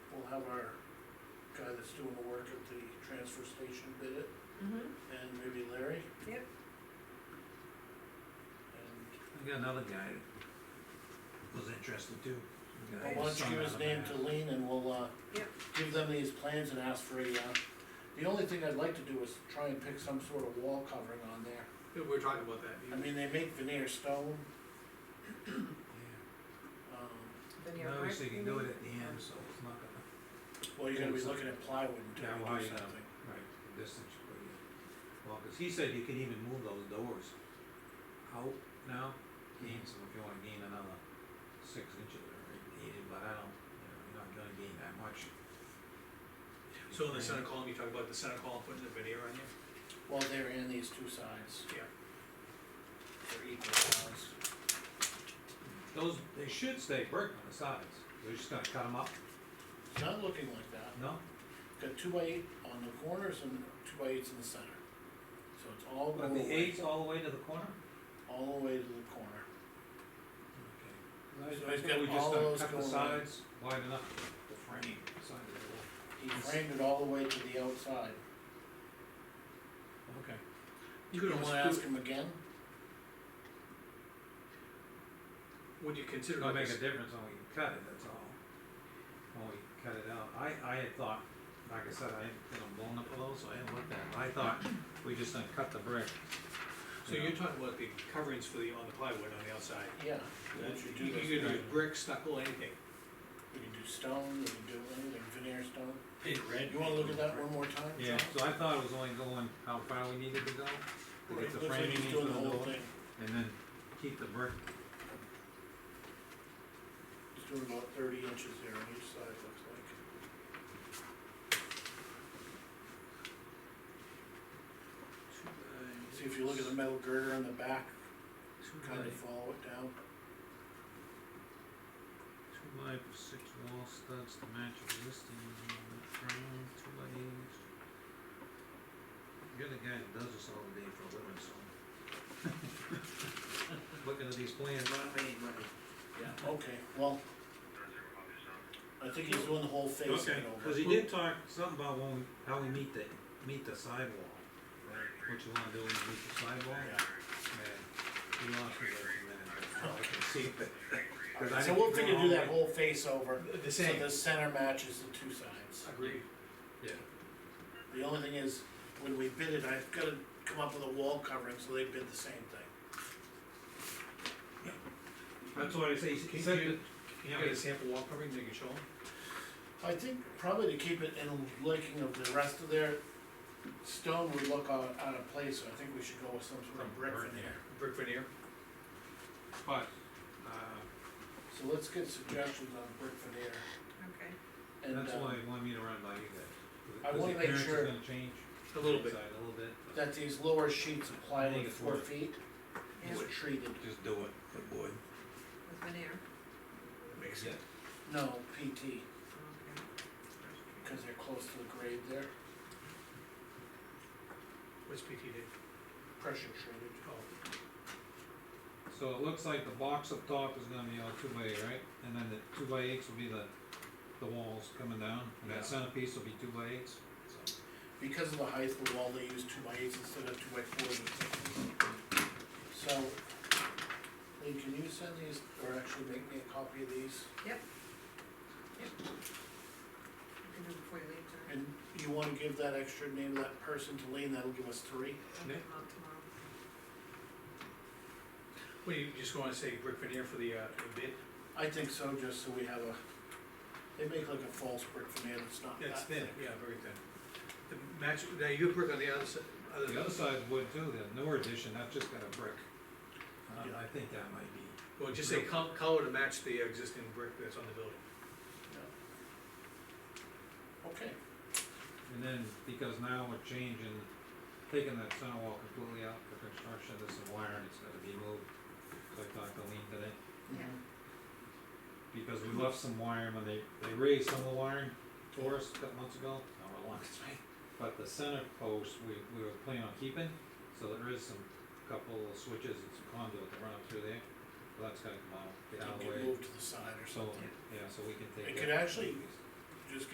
have our guy that's doing the work at the transfer station bid it, Mm-hmm, and maybe Larry, yep, and, I got another guy that was interested too. The guy well, why don't you son give his of a name man. to Lean and we'll, uh, Yep. give them these plans and ask for a, uh, the only thing I'd like to do is try and pick some sort of wall covering on there. We were talking about that. I mean, they make veneer stone, um, veneer Yeah. I pipe. wish they you could do mean? it at the end, so it's not gonna, well, you're gonna be looking at plywood until Yeah, we well, do yeah. something. right, the distance, but yeah. Well, cause he said you can even move those doors out now, gain some, if you wanna gain another six inches or eight, but I don't, you know, you're not gonna gain that much. So in the center column, you talk about the center column putting the veneer on there, Well, they're in these two sides, yeah. they're equal size. Those, they should stay brick on the sides, we're just gonna cut them up, It's not looking like that. no? Got two by eight on the corners and two by eights in the center. So it's all But going the away, eights all the way to the corner? all the way to the corner. Okay. So I he's think we got just all done those cut the going in. sides wide enough to frame the side of the wall. He Yes. framed it all the way to the outside. Okay. You You could wanna almost ask do, him again? would you It's consider gonna like make this, a difference when we cut it, that's all. When we cut it out, I, I had thought, like I said, I hadn't been blown up a little, so I hadn't looked at it, I thought we just gonna cut the brick. so you're talking about the coverings for the, on the plywood on the outside? Yeah. You Once you do this, could do you brick, stucco, anything. can do stone, you can do anything, veneer stone. In red. You wanna look at that one more time? Yeah, John? so I thought it was only going how far we needed to go, to It get the looks like framing he's into doing the the whole door, thing. and then keep the brick, He's doing about thirty inches there on each side, it looks like. See, if you look at the metal girder on the back, two by, kind of follow it down. two by six wall studs to match existing, frame, two by eight. You're the guy that does this all day for a living, so. Looking at these plans, Okay, well. I think he's doing the whole face of Okay, it over. cause he did talk something about when, we- how we meet the, meet the sidewall, Right, what you wanna do when you meet the sidewall, and he lost me there for a minute, but now Oh, I can see it. Cause I yeah. So think we'll you're figure going do all that the- whole face over, The so same, the center matches the two sides. agreed. The only thing is, when we bid it, I've gotta come up with a wall covering, so they bid the same thing. That's what I say, Can he you said get- that, Can you get a sample wall covering, they can show them? I think probably to keep it in liking of the rest of their stone would look out, out of place, so I think we should go with some sort Some of brick brick, veneer. Brick veneer, but, uh, So let's get suggestions on brick veneer, Okay, and, that's uh, why he wanted me to run by you guys. I 'cause- 'cause the wanna make appearance is sure- gonna change a little bit, inside A little bit, but that these lower sheets of plywood, it's four worth feet, yeah, is with treated. just do it, it would. veneer, makes Yeah. sense. No, PT, okay. because they're close to the grade there, What's PT did? pressure treated. Oh, So it looks like the box up top is gonna be all two by eight, right? And then the two by eights will be the, the walls coming down, and Yeah. that centerpiece will be two by eights, so. Because of the height of the wall, they use two by eights instead of two by fours. and sixes. So, Lee, can you send these, or actually make me a copy of these? You can do it before you leave tonight. And you wanna give that extra name of that person to Lee, and that'll give us three? I'll Yeah. get them out tomorrow. what, do you just wanna say brick veneer for the, uh, bid? I think so, just so we have a, they make like a false brick veneer that's not that That's thin, thick. yeah, very thin. The match, now you put brick on the other side, The other, other side's wood too, the newer edition, that's just got a brick. Um, Yeah. I think that might be, well, just say col- color to match the existing brick that's on the building. Yeah. Okay, and then, because now we're changing, taking that center wall completely out for construction, this is wiring, it's gotta be moved. So I talked to Lean today, Yeah. because we left some wiring when they, they raised some of the wiring for us a couple months ago, not a long time. But the center post, we, we were planning on keeping, so there is some, couple of switches and some conduit that run up through there, but that's gotta come out, get it out of the can way. move to the side or So, something. yeah, so we can take. It that could actually- piece.